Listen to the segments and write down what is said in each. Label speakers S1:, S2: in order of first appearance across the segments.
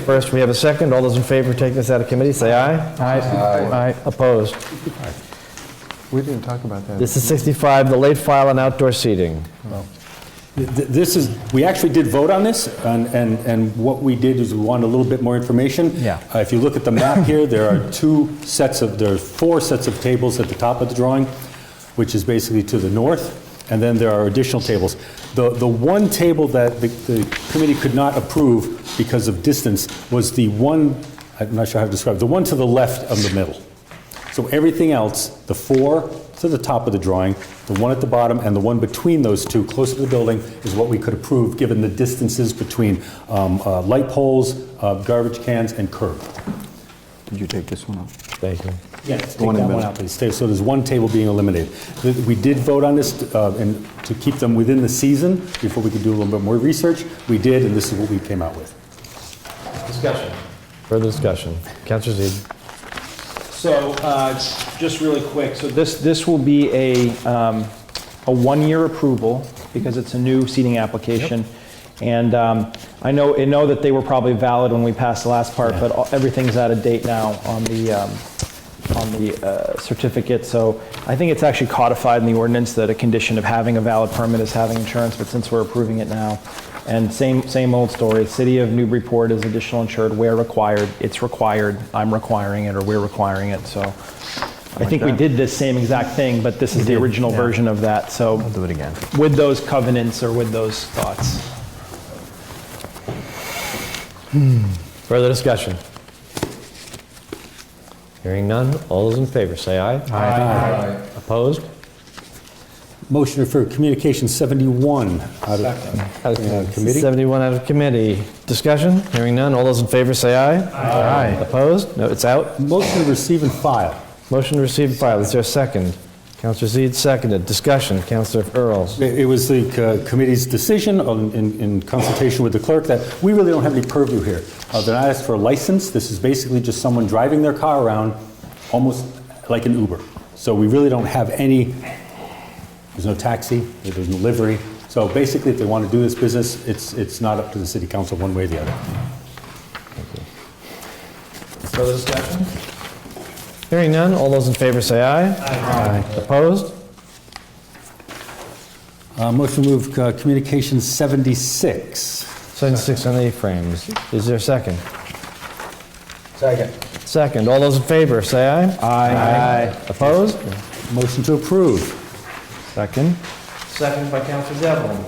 S1: first, we have a second. All those in favor of taking this out of committee, say aye.
S2: Aye.
S1: Opposed?
S2: We didn't talk about that.
S1: This is 65, the late file and outdoor seating.
S3: Th- th- This is, we actually did vote on this, and, and and what we did is we wanted a little bit more information.
S2: Yeah.
S3: Uh, If you look at the map here, there are two sets of, there are four sets of tables at the top of the drawing, which is basically to the north, and then there are additional tables. The, the one table that the- the committee could not approve because of distance was the one, I'm not sure how to describe, it, the one to the left of the middle. So everything else, the four to the top of the drawing, the one at the bottom, and the one between those two, closer to the building, is what we could approve, given the distances between um, uh, light poles, uh, garbage cans, and curb.
S2: Did you take this one off?
S1: Thank you.
S3: Yes, take
S2: one in
S3: that
S2: the middle.
S3: one out, please. Stay- So there's one table being eliminated. Th- We did vote on this, uh, and to keep them within the season, before we could do a little bit more research, we did, and this is what we came out with.
S4: Discussion.
S1: Further discussion. Counselor Zede.
S4: So, uh, just really quick, so this, this will be a, um, a one-year approval because it's a new seating application. And um, I know, I know that they were probably valid when we passed the last part, but all- everything's out of date now on the, um, on the uh, certificate. So I think it's actually codified in the ordinance that a condition of having a valid permit is having insurance, but since we're approving it now, and same, same old story, City of Newburyport is additional insured where required, it's required, I'm requiring it, or we're requiring it, so. I think we did this same exact thing, but this is the original version of that, so. I'll
S1: do it again.
S4: With those covenants or with those thoughts.
S1: Further discussion. Hearing none. All those in favor, say aye. Aye. Opposed?
S3: Motion for Communication 71 out of uh, committee.
S1: 71 out of committee. Discussion? Hearing none. All those in favor, say aye. Aye. Opposed? No, it's out.
S3: Motion to receive and file.
S1: Motion to receive and file. Is there a second? Counselor Zede seconded. Discussion. Counselor Earls.
S3: It it was the uh, committee's decision on- in in consultation with the clerk that we really don't have any purview here. Uh, They're not asked for a license. This is basically just someone driving their car around, almost like an Uber. So we really don't have any, there's no taxi, there's no livery. So basically, if they want to do this business, it's it's not up to the city council one way or the other.
S1: Further discussion? Hearing none. All those in favor, say aye. Aye. Opposed?
S3: Uh, Motion to move uh, Communication 76.
S1: 76 on the frames. Is there a second?
S2: Second.
S1: Second. All those in favor, say aye. Aye. Opposed?
S3: Motion to approve.
S1: Second. Second by Counselor Devlin.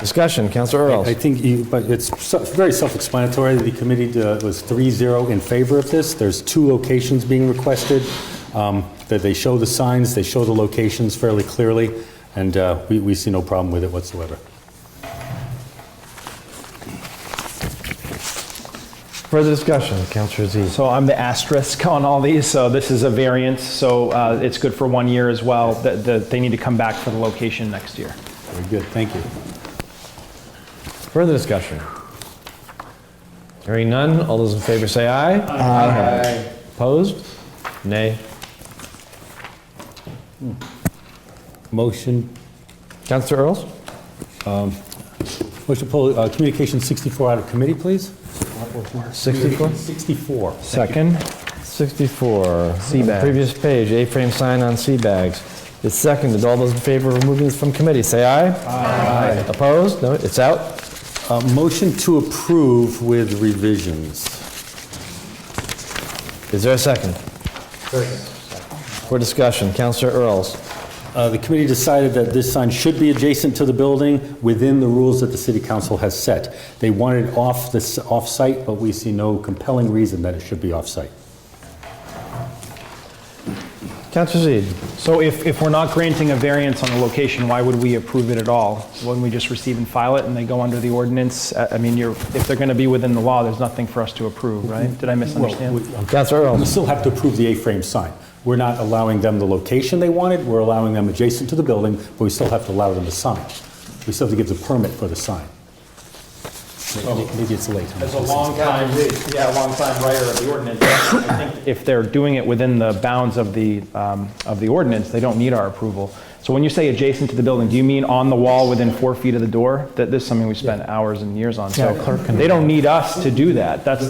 S1: Discussion. Counselor Earls.
S3: I think, you- but it's se- very self-explanatory. The committee uh, was 3-0 in favor of this. There's two locations being requested, um, that they show the signs, they show the locations fairly clearly, and uh, we we see no problem with it whatsoever.
S1: Further discussion. Counselor Z.
S4: So I'm the asterisk on all these, so this is a variance, so uh, it's good for one year as well. The- the- They need to come back for the location next year.
S3: Very good, thank you.
S1: Further discussion. Hearing none. All those in favor, say aye. Aye. Opposed? Nay.
S3: Motion,
S1: Counselor Earls?
S3: motion to pull uh, Communication 64 out of committee, please?
S1: 64?
S3: 64.
S4: Second?
S1: 64. Seabag. Previous page, A-frame sign on sea bags. It's seconded. All those in favor of removing this from committee, say aye. Aye. Opposed? No, it's out.
S3: Uh, Motion to approve with revisions.
S1: Is there a second? For discussion, Counselor Earls.
S3: Uh, The committee decided that this sign should be adjacent to the building within the rules that the city council has set. They wanted it off this, off-site, but we see no compelling reason that it should be off-site.
S1: Counselor Zede.
S4: So if, if we're not granting a variance on the location, why would we approve it at all? Wouldn't we just receive and file it and they go under the ordinance? I I mean, you're, if they're going to be within the law, there's nothing for us to approve, right? Did I misunderstand?
S1: Counselor
S3: We
S1: Earls.
S3: still have to approve the A-frame sign. We're not allowing them the location they wanted, we're allowing them adjacent to the building, but we still have to allow them the sign. We still have to give the permit for the sign. Maybe- Maybe it's late. huh?
S4: time, yeah, long time writer of the ordinance. I think If they're doing it within the bounds of the, um, of the ordinance, they don't need our approval. So when you say adjacent to the building, do you mean on the wall within four feet of the door? That, this is something we spent hours and years on, so they don't need us to do that. That's